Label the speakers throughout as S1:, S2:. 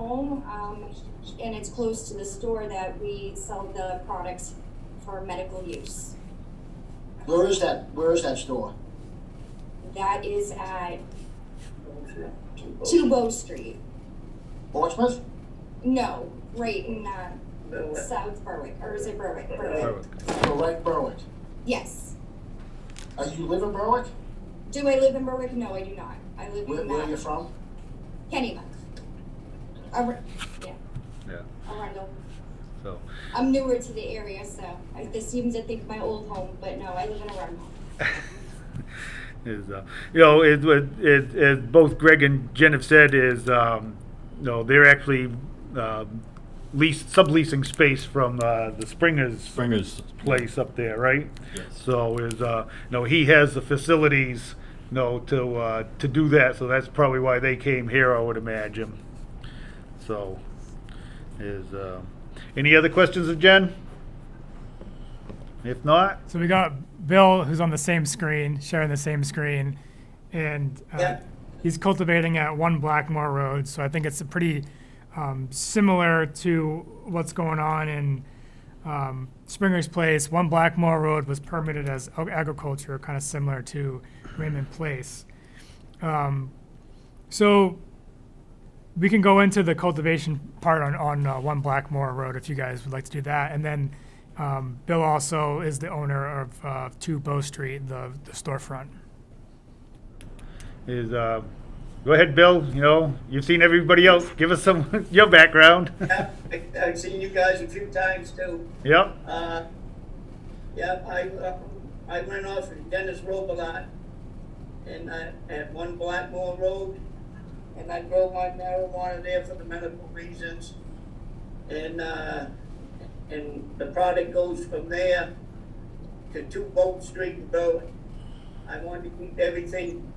S1: home, um, and it's close to the store that we sell the products for medical use.
S2: Where is that, where is that store?
S1: That is at Tubo Street.
S2: Portsmouth?
S1: No, right in, uh,
S3: Well,
S1: South Berwick, or is it Berwick? Berwick,
S4: Berwick.
S2: Or right Berwick?
S1: yes.
S2: Uh, you live in Berwick?
S1: Do I live in Berwick? No, I do not. I live
S2: Where, where are you
S1: in, uh,
S2: from?
S1: Kennebec. Ar- yeah.
S4: Yeah.
S1: Arundel.
S4: So,
S1: I'm newer to the area, so I, this seems to think my old home, but no, I live in Arundel.
S4: is uh, you know, it, it, it, as both Greg and Jen have said, is um, you know, they're actually um, lease subleasing space from uh, the Springers
S5: Springer's
S4: place up there, right?
S5: Yes.
S4: So is uh, you know, he has the facilities, you know, to uh, to do that. So that's probably why they came here, I would imagine. So, is uh, any other questions of Jen? If not,
S6: So we got Bill, who's on the same screen, sharing the same screen, and uh,
S3: Yeah.
S6: he's cultivating at One Blackmore Road. So I think it's a pretty um, similar to what's going on in um, Springer's Place. One Blackmore Road was permitted as ag- agriculture, kind of similar to Raymond Place. Um, so we can go into the cultivation part on, on uh, One Blackmore Road if you guys would like to do that. And then um, Bill also is the owner of uh, 2 Bow Street, the, the storefront.
S4: is uh, go ahead, Bill. You know, you've seen everybody else. Give us some your background.
S3: yeah, I- I've seen you guys a few times too.
S4: yep.
S3: Uh, yeah, I, uh, I went off of Dennis Robelot and I, at One Blackmore Road. And I grow my marijuana there for the medical reasons. And, uh, and the product goes from there to Two Boat Street in Berwick. I want to keep everything,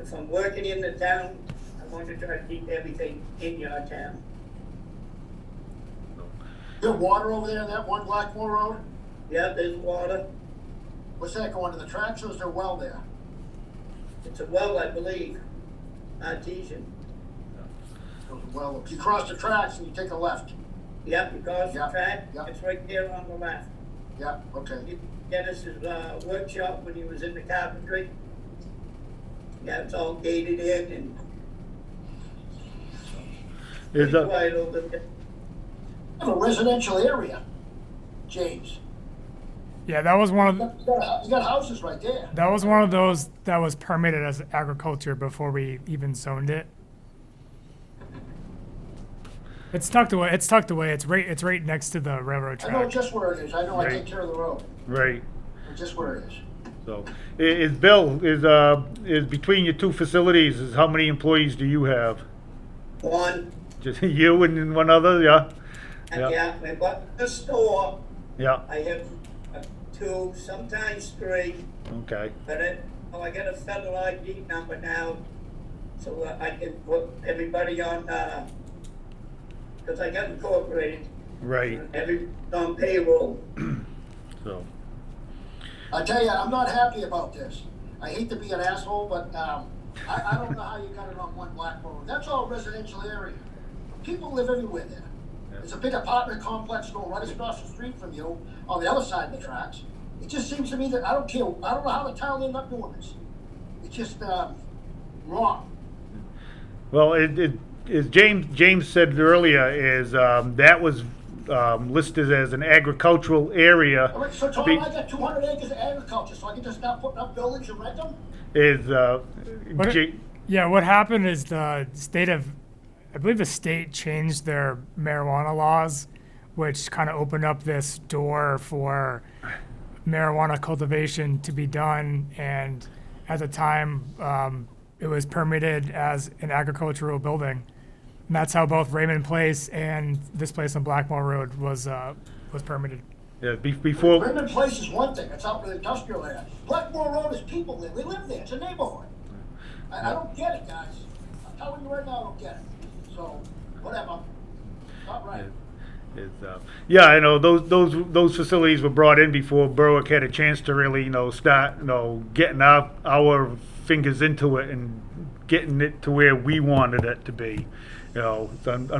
S3: if I'm working in the town, I want to try to keep everything in your town.
S2: There water over there in that one Blackmore Road?
S3: Yeah, there's water.
S2: What's that going to the tracks or is there a well there?
S3: It's a well, I believe, artesian.
S2: There's a well. If you cross the tracks and you take a left.
S3: Yep, you cross the
S2: Yeah,
S3: track,
S2: yeah.
S3: it's right there on the left.
S2: Yeah, okay.
S3: You- Dennis's, uh, workshop when he was in the carpentry. Yeah, it's all gated in and
S4: Is
S3: pretty
S4: uh,
S3: quiet over there.
S2: You have a residential area, James.
S6: Yeah, that was one of
S2: You got, you got houses right there.
S6: that was one of those that was permitted as agriculture before we even zoned it. It's tucked away. It's tucked away. It's right. It's right next to the railroad
S2: I know
S6: track.
S2: just where it is. I know I
S4: Right.
S2: take care of the road.
S4: right.
S2: Just where it is.
S4: So, i- is Bill is uh is between your two facilities? Is how many employees do you have?
S3: One,
S4: Just you and then one other? Yeah.
S3: and
S4: Yeah.
S3: yeah, and but the store,
S4: Yeah.
S3: I have uh, two, sometimes three,
S4: Okay.
S3: but it, oh, I got a federal ID number now. So uh, I can put everybody on, uh 'cause cause I got incorporated,
S4: Right.
S3: every, on payroll.
S4: So.
S2: I tell you, I'm not happy about this. I hate to be an asshole, but um, I, I don't know how you got it on one black road. That's all residential area. People live everywhere there. There's a big apartment complex going right across the street from you on the other side of the tracks. It just seems to me that I don't care. I don't know how the town ended up doing this. It's just um, wrong.
S4: Well, it, it is James. James said earlier is um, that was um, listed as an agricultural area.
S2: All right, so Tom,
S4: Be-
S2: I got 200 acres of agriculture, so I can just stop putting up buildings and rent them.
S4: Is uh,
S6: What-
S4: Ja-
S6: Yeah, what happened is the state of, I believe the state changed their marijuana laws, which kind of opened up this door for marijuana cultivation to be done. And at the time, um, it was permitted as an agricultural building. And that's how both Raymond Place and this place on Blackmore Road was, uh, was permitted.
S4: yeah, be- before
S2: Raymond Place is one thing, it's out in the industrial area. Blackmore Road is people live, they live there, it's a neighborhood. I, I don't get it, guys. I'm telling you right now, I don't get it. So, whatever, not right.
S4: Is, uh, yeah, I know those those those facilities were brought in before Berwick had a chance to really you know start you know getting our our fingers into it and getting it to where we wanted it to be. You know, it's un-